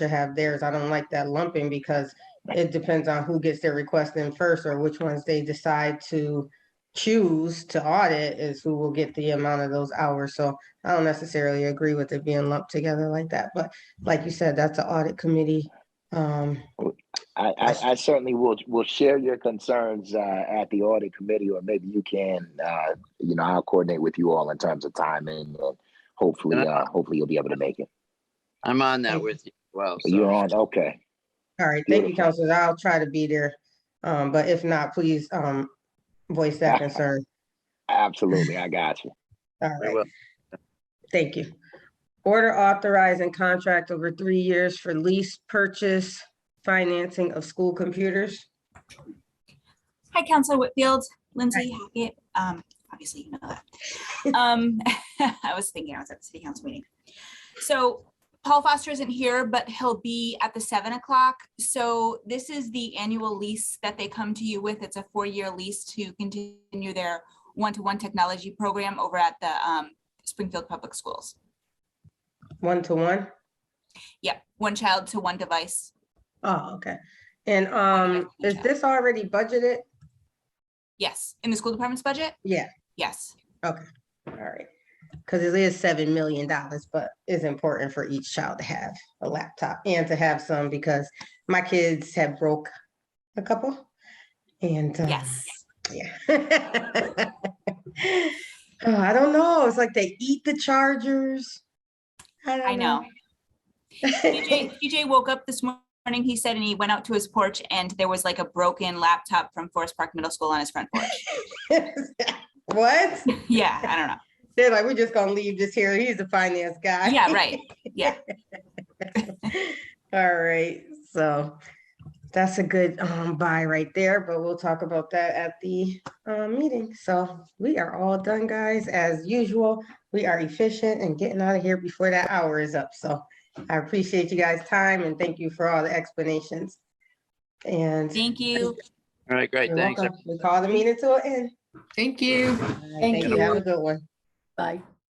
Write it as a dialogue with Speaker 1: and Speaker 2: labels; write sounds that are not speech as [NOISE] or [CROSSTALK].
Speaker 1: to have theirs. I don't like that lumping because it depends on who gets their request in first or which ones they decide to choose to audit is who will get the amount of those hours. So I don't necessarily agree with it being lumped together like that, but like you said, that's an audit committee. Um,
Speaker 2: I, I, I certainly will will share your concerns uh, at the audit committee, or maybe you can, uh, you know, I'll coordinate with you all in terms of timing, and hopefully, uh, hopefully you'll be able to make it.
Speaker 3: I'm on that with you. as Well, so-
Speaker 2: You're on, okay.
Speaker 1: all right, thank you,
Speaker 2: Beautiful.
Speaker 1: counselors. I'll try to be there. Um, but if not, please, um, voice that concern.
Speaker 2: Absolutely, I got you.
Speaker 1: All
Speaker 3: I
Speaker 1: right.
Speaker 3: will.
Speaker 1: Thank you. Order authorizing contract over three years for lease purchase financing of school computers.
Speaker 4: Hi, Council Whitfield, Lindsay Hackett, um, obviously you know that. Um, [LAUGHS] I was thinking I was at the city council meeting. So Paul Foster isn't here, but he'll be at the seven o'clock. So this is the annual lease that they come to you with. It's a four-year lease to continue their one-to-one technology program over at the, um, Springfield Public Schools.
Speaker 1: One to one?
Speaker 4: Yeah, one child to one device.
Speaker 1: Oh, okay. And um, is this already budgeted?
Speaker 4: Yes, in the school department's budget?
Speaker 1: Yeah,
Speaker 4: Yes.
Speaker 1: all right. Because it is seven million dollars, but it's important for each child to have a laptop and to have some because my kids have broke a couple. And. um,
Speaker 4: Yes.
Speaker 1: Yeah. [LAUGHS] Oh, I don't know. It's like they eat the chargers.
Speaker 4: I
Speaker 1: don't
Speaker 4: know. TJ, TJ woke up this morning, he said, and he went out to his porch and there was like a broken laptop from Forest Park Middle School on his front porch.
Speaker 1: [LAUGHS] What?
Speaker 4: Yeah, I don't know.
Speaker 1: They're like, we're just gonna leave this here. He's a finance guy.
Speaker 4: Yeah, right. Yeah.
Speaker 1: All right, so that's a good um buy right there, but we'll talk about that at the uh meeting. So we are all done, guys. As usual, we are efficient and getting out of here before that hour is up. So I appreciate you guys' time and thank you for all the explanations. And
Speaker 4: Thank you.
Speaker 3: All right, great,
Speaker 1: you're
Speaker 3: thanks.
Speaker 1: welcome. We call the meeting to an end.
Speaker 5: Thank you.
Speaker 1: All right,
Speaker 5: Thank
Speaker 1: Thank you.
Speaker 5: you.
Speaker 1: Have a good one.
Speaker 5: Bye.